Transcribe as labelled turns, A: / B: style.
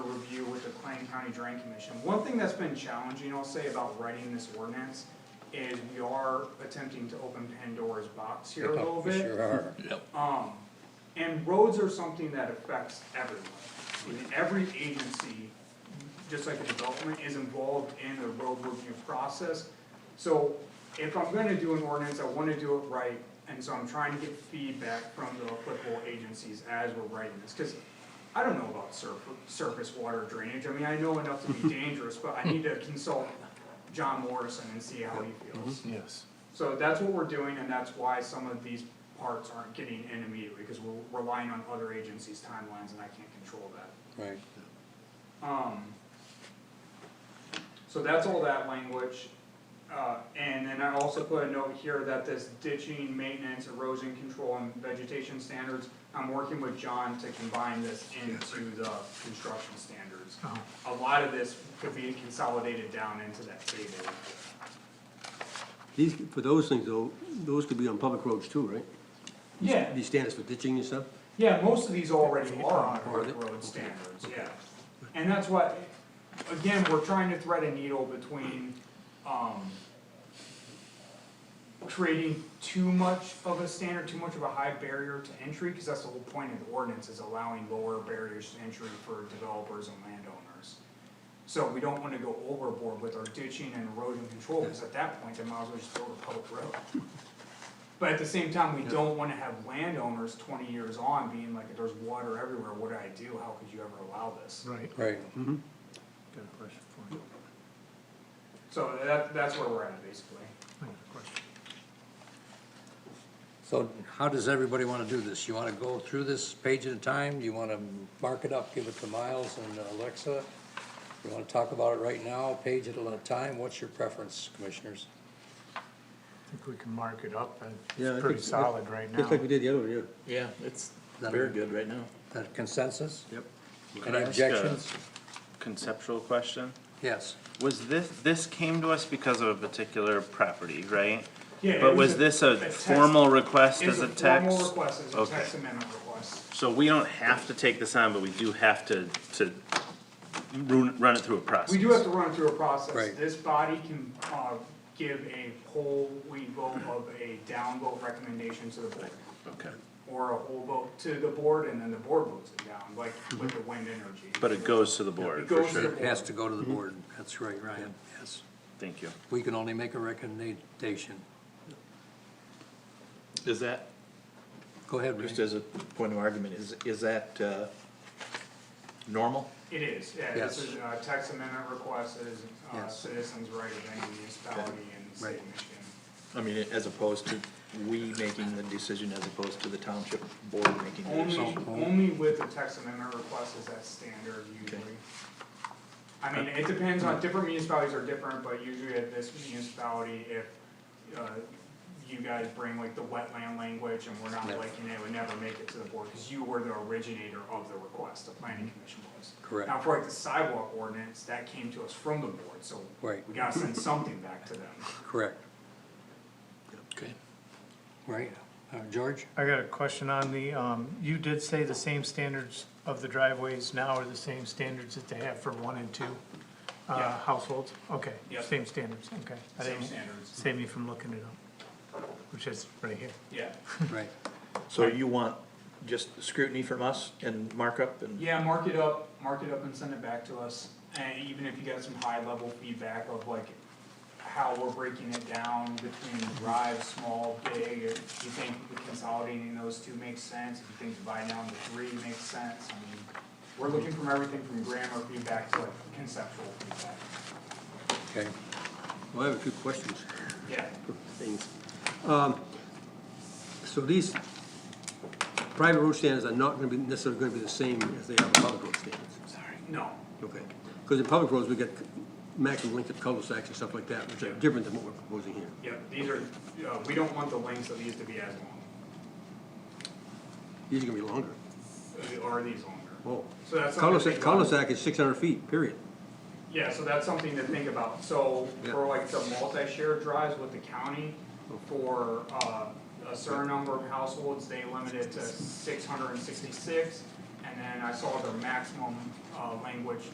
A: County Drain Commission. One thing that's been challenging, I'll say, about writing this ordinance is we are attempting to open Pandora's box here a little
B: We
A: bit.
B: Sure are.
A: Um, and roads are something that affects everyone. I mean, every agency, just like a development, is involved in the road review process. So if I'm gonna do an ordinance, I wanna do it right, and so I'm trying to get feedback from the applicable agencies as we're writing this, cause I don't know about surf, surface water drainage, I mean, I know enough to be dangerous, but I need to consult John Morrison and see how he feels.
C: Yes.
A: So that's what we're doing, and that's why some of these parts aren't getting in immediately, because we're relying on other agencies' timelines, and I can't control that.
B: Right.
A: Um, so that's all that language, uh, and then I also put a note here that this ditching, maintenance, erosion control, and vegetation standards, I'm working with John to combine this into the construction standards. A lot of this could be consolidated down into that table.
D: These, for those things though, those could be on public roads too, right?
A: Yeah,
D: These standards for ditching and stuff?
A: Yeah, most of these already are on
D: Are they?
A: public road standards, yeah. And that's what, again, we're trying to thread a needle between, um, creating too much of a standard, too much of a high barrier to entry, cause that's the whole point of the ordinance, is allowing lower barriers to entry for developers and landowners. So we don't wanna go overboard with our ditching and erosion control, cause at that point, they might as well just build a public road. But at the same time, we don't wanna have landowners twenty years on being like, there's water everywhere, what do I do, how could you ever allow this?
C: Right.
B: Right.
D: Mm-hmm.
C: Got a question for you.
A: So that, that's where we're at, basically.
C: I got a question.
B: So how does everybody wanna do this? You wanna go through this page at a time? You wanna mark it up, give it to Miles and uh, Alexa? You wanna talk about it right now, page at a time? What's your preference, commissioners?
C: I think we can mark it up, and
D: Yeah, I
C: it's pretty
D: think-
C: solid right now.
D: Just like we did the other one, yeah.
E: Yeah, it's
B: That-
E: very good right now.
B: That consensus?
D: Yep.
E: Can
B: Any
E: I ask uh, a
B: objections?
E: Conceptual question,
B: Yes.
E: was this, this came to us because of a particular property, right?
A: Yeah, it
E: But
A: was
E: was
A: a-
E: this
A: a
E: a
A: text.
E: formal request
A: It was
E: as a
A: formal
E: text?
A: request, it's a
E: Okay.
A: text amendment request.
E: So we don't have to take this on, but we do have to, to run, run it through a process.
A: We do have to run through a process.
B: Right.
A: This body can, uh, give a whole, we vote of a downvote recommendation to the board.
E: Okay,
A: Or a whole vote to the board, and then the board votes it down, like
B: Mm-hmm.
A: with the wind energy.
E: but it goes to the board,
A: It
E: for
A: goes to the
E: sure,
A: board.
B: It has to go to the
D: Mm-hmm.
B: board. That's right, Ryan, yes.
E: thank you.
B: We can only make a recommendation.
F: Is that,
B: Go ahead,
F: just
B: Ryan.
F: as a point of argument, is, is that, uh, normal?
A: It is, yeah, this
B: Yes.
A: is a text amendment request, it is, uh,
B: Yes.
A: citizens' right of any municipality in the state of
B: Right.
A: Michigan.
F: I mean, as opposed to we making the decision as opposed to the township board making the decision?
A: Only, only with the text amendment request is that standard usually. I mean, it depends on, different municipalities are different, but usually at this municipality, if, uh, you guys bring like the wetland language and we're not
B: Yeah.
A: liking it, it would never make it to the board, cause you were the originator of the request, the planning commission was.
B: Correct.
A: Now, for like the sidewalk ordinance, that came to us from the board, so
B: Right.
A: we gotta send something back to them.
B: Correct. Okay. Right, uh, George?
C: I got a question on the, um, you did say the same standards of the driveways now are the same standards that they have for one and two, uh,
A: Yeah.
C: households? Okay,
A: Yep.
C: same standards, okay. I
A: Same
C: didn't-
A: standards.
C: Save me from looking it up, which is right here.
A: Yeah,
D: Hmm.
B: Right.
F: So you want just scrutiny from us and markup and?
A: yeah, mark it up, mark it up and send it back to us, and even if you got some high level feedback of like how we're breaking it down between drive, small, big, if you think consolidating those two makes sense, if you think dividing down to three makes sense, I mean, we're looking from everything from grammar feedback to like conceptual feedback,
B: Okay.
D: Well, I have a few questions.
A: yeah.
D: Things. Um, So these private road standards are not gonna be necessarily gonna be the same as they are the public road standards.
A: No,
D: Okay, because in public roads, we get maximum length of cul-de-sacs and stuff like that, which are different than what we're proposing here.
A: yeah, these are, uh, we don't want the lengths of these to be as
D: These are gonna be longer.
A: long, uh, or these longer.
D: Oh.
A: So that's something to
D: Cul-de-sac,
A: think about.
D: cul-de-sac is six hundred feet, period.
A: Yeah, so that's something to think about, so
D: Yeah.
A: for like the multi-share drives with the county, for, uh, a certain number of households, they limited to six hundred and sixty-six. And then I saw their maximum, uh, language